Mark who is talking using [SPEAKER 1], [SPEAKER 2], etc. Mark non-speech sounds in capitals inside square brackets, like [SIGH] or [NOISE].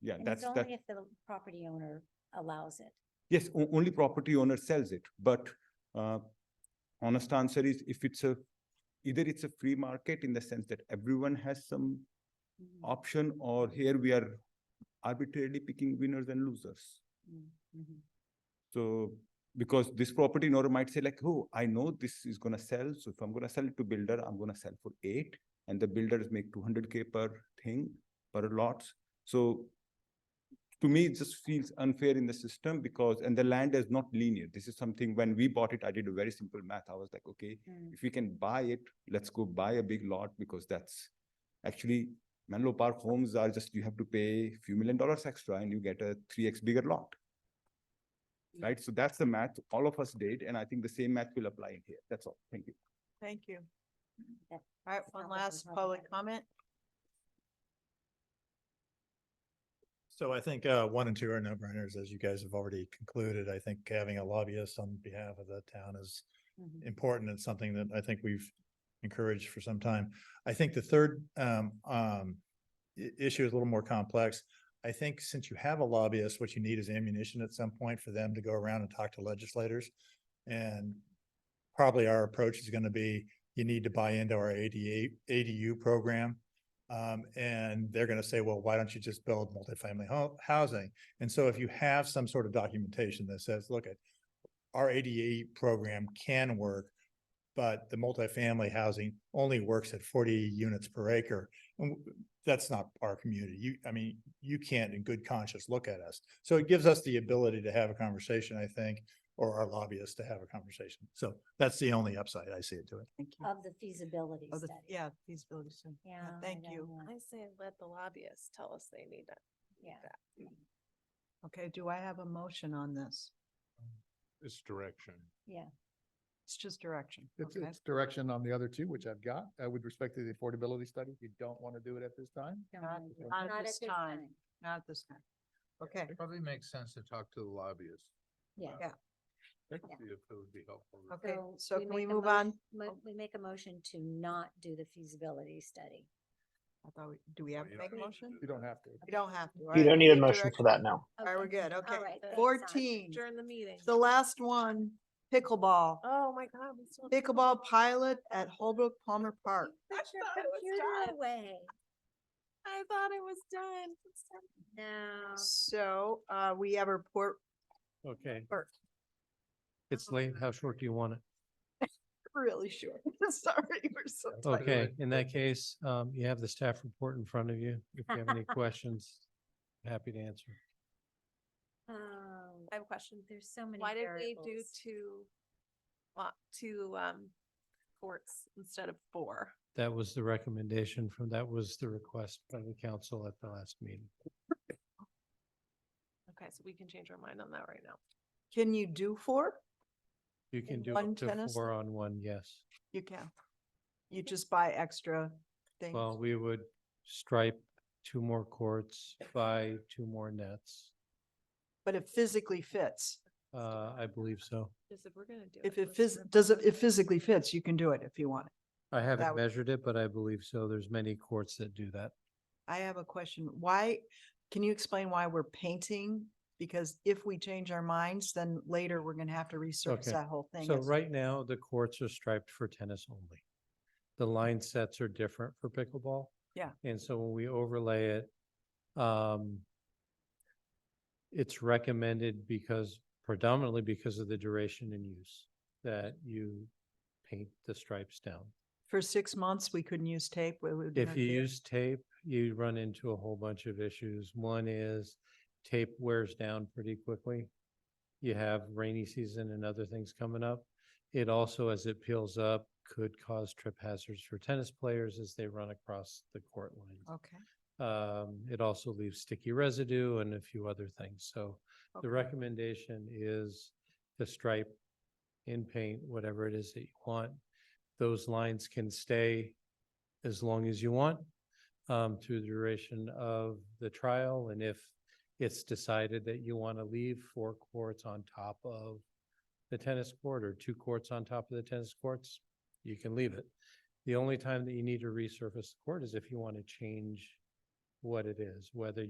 [SPEAKER 1] Yeah,
[SPEAKER 2] And
[SPEAKER 1] that's
[SPEAKER 2] it's
[SPEAKER 1] that.
[SPEAKER 2] only if the property owner allows it.
[SPEAKER 1] Yes, o- only property owner sells it, but uh, honest answer is if it's a, either it's a free market in the sense that everyone has some
[SPEAKER 2] Mm,
[SPEAKER 1] option or here we are arbitrarily picking winners and losers.
[SPEAKER 2] mm, mhm.
[SPEAKER 1] So because this property owner might say like, oh, I know this is gonna sell, so if I'm gonna sell it to builder, I'm gonna sell for eight. And the builders make two hundred K per thing, per lots. So to me, it just feels unfair in the system because, and the land is not linear. This is something, when we bought it, I did a very simple math. I was like, okay,
[SPEAKER 2] Mm,
[SPEAKER 1] if we can buy it, let's go buy a big lot because that's actually Menlo Park homes are just, you have to pay few million dollars extra and you get a three X bigger lot.
[SPEAKER 2] Yeah.
[SPEAKER 1] Right? So that's the math all of us did, and I think the same math will apply in here. That's all. Thank you.
[SPEAKER 3] Thank you.
[SPEAKER 2] that-
[SPEAKER 3] All right,
[SPEAKER 2] Sounds like
[SPEAKER 3] one
[SPEAKER 2] we
[SPEAKER 3] last
[SPEAKER 2] have a
[SPEAKER 3] public
[SPEAKER 2] better-
[SPEAKER 3] comment.
[SPEAKER 4] So I think uh, one and two are no-brainers, as you guys have already concluded. I think having a lobbyist on behalf of the town is
[SPEAKER 2] mhm.
[SPEAKER 4] important and something that I think we've encouraged for some time. I think the third um, um, i- issue is a little more complex. I think since you have a lobbyist, what you need is ammunition at some point for them to go around and talk to legislators. And probably our approach is going to be, you need to buy into our ADA, ADU program. Um, and they're going to say, well, why don't you just build multifamily ho- housing? And so if you have some sort of documentation that says, look, at our ADA program can work, but the multifamily housing only works at forty units per acre. And w- that's not our community. You, I mean, you can't in good conscience look at us. So it gives us the ability to have a conversation, I think, or our lobbyists to have a conversation. So that's the only upside I see it to it.
[SPEAKER 3] Thank you.
[SPEAKER 2] Of the feasibility
[SPEAKER 3] Of Oh, the-
[SPEAKER 2] study.
[SPEAKER 3] Yeah, feasibility study.
[SPEAKER 2] Yeah, I
[SPEAKER 3] Thank
[SPEAKER 2] don't
[SPEAKER 3] you.
[SPEAKER 2] know.
[SPEAKER 5] I say let the lobbyists tell us they need it.
[SPEAKER 2] Yeah.
[SPEAKER 3] Okay, do I have a motion on this?
[SPEAKER 6] It's direction.
[SPEAKER 2] Yeah,
[SPEAKER 3] It's just direction.
[SPEAKER 7] It's,
[SPEAKER 3] Okay,
[SPEAKER 7] it's direction on the other two, which I've got, uh, with respect to the affordability study, if you don't want to do it at this time.
[SPEAKER 2] don't
[SPEAKER 3] Not-
[SPEAKER 2] need it.
[SPEAKER 3] not at
[SPEAKER 2] Not
[SPEAKER 3] this time. not at this time. Okay,
[SPEAKER 6] It probably makes sense to talk to the lobbyists.
[SPEAKER 2] Yeah.
[SPEAKER 3] Yeah.
[SPEAKER 6] That
[SPEAKER 2] Yeah.
[SPEAKER 6] would be, if it would be helpful.
[SPEAKER 3] okay,
[SPEAKER 2] So
[SPEAKER 3] so can we
[SPEAKER 2] make a
[SPEAKER 3] move on?
[SPEAKER 2] motion- mo- We make a motion to not do the feasibility study.
[SPEAKER 3] I thought, we- do we have to
[SPEAKER 6] You
[SPEAKER 3] make a
[SPEAKER 6] don't need to
[SPEAKER 3] motion?
[SPEAKER 6] do
[SPEAKER 7] You don't have to.
[SPEAKER 3] You don't have to. all
[SPEAKER 8] You
[SPEAKER 3] right,
[SPEAKER 8] don't need a
[SPEAKER 3] just
[SPEAKER 8] motion
[SPEAKER 3] direct-
[SPEAKER 8] for that now.
[SPEAKER 3] All right, we're good,
[SPEAKER 2] All
[SPEAKER 3] okay.
[SPEAKER 2] right, that's fine.
[SPEAKER 3] Fourteen,
[SPEAKER 5] During the meeting.
[SPEAKER 3] the last one, pickleball,
[SPEAKER 5] Oh, my God. we still have to vote.
[SPEAKER 3] pickleball pilot at Holbrook Palmer Park.
[SPEAKER 5] I
[SPEAKER 2] Put
[SPEAKER 3] [LAUGHS]
[SPEAKER 2] your
[SPEAKER 5] thought it was
[SPEAKER 2] computer
[SPEAKER 5] done.
[SPEAKER 2] away.
[SPEAKER 5] I thought it was done. It's done.
[SPEAKER 2] No.
[SPEAKER 3] So, uh, we have a report
[SPEAKER 9] Okay,
[SPEAKER 3] Bert.
[SPEAKER 9] it's late. How short do you want it?
[SPEAKER 3] Really short. [LAUGHS] Sorry, we're so tired.
[SPEAKER 9] Okay, in that case, um, you have the staff report in front of you. If you have
[SPEAKER 3] [LAUGHS]
[SPEAKER 9] any questions, happy to answer.
[SPEAKER 2] Oh,
[SPEAKER 5] I have a question.
[SPEAKER 2] there's so many
[SPEAKER 5] Why did we do
[SPEAKER 2] variables.
[SPEAKER 5] two, lot, two, um, courts instead of four?
[SPEAKER 9] That was the recommendation from, that was the request by the council at the last meeting.
[SPEAKER 5] Okay, so we can change our mind on that right now.
[SPEAKER 3] Can you do four?
[SPEAKER 9] You can
[SPEAKER 3] And
[SPEAKER 9] do
[SPEAKER 3] one
[SPEAKER 9] up to
[SPEAKER 3] tennis-
[SPEAKER 9] four on one, yes.
[SPEAKER 3] You can. You just buy extra things.
[SPEAKER 9] Well, we would stripe two more courts, buy two more nets.
[SPEAKER 3] But it physically fits.
[SPEAKER 9] Uh, I believe so.
[SPEAKER 5] Just if we're gonna do.
[SPEAKER 3] If
[SPEAKER 5] let's
[SPEAKER 3] it
[SPEAKER 5] do
[SPEAKER 3] phys, does it, it physically fits, you can do it if you want.
[SPEAKER 9] I
[SPEAKER 3] That
[SPEAKER 9] haven't
[SPEAKER 3] would-
[SPEAKER 9] measured it, but I believe so. There's many courts that do that.
[SPEAKER 3] I have a question. Why, can you explain why we're painting? Because if we change our minds, then later we're gonna have to research
[SPEAKER 9] Okay.
[SPEAKER 3] that whole thing.
[SPEAKER 9] So
[SPEAKER 3] as-
[SPEAKER 9] right now, the courts are striped for tennis only. The line sets are different for pickleball.
[SPEAKER 3] Yeah.
[SPEAKER 9] And so when we overlay it, um, it's recommended because predominantly because of the duration and use that you paint the stripes down.
[SPEAKER 3] For six months, we couldn't use tape. we would
[SPEAKER 9] If
[SPEAKER 3] not
[SPEAKER 9] you
[SPEAKER 3] do it.
[SPEAKER 9] use tape, you run into a whole bunch of issues. One is tape wears down pretty quickly. You have rainy season and other things coming up. It also, as it peels up, could cause trip hazards for tennis players as they run across the court lines.
[SPEAKER 3] Okay.
[SPEAKER 9] Um, it also leaves sticky residue and a few other things. So
[SPEAKER 3] okay.
[SPEAKER 9] the recommendation is to stripe in paint, whatever it is that you want. Those lines can stay as long as you want um, through the duration of the trial. And if it's decided that you want to leave four courts on top of the tennis court or two courts on top of the tennis courts, you can leave it. The only time that you need to resurface the court is if you want to change what it is, whether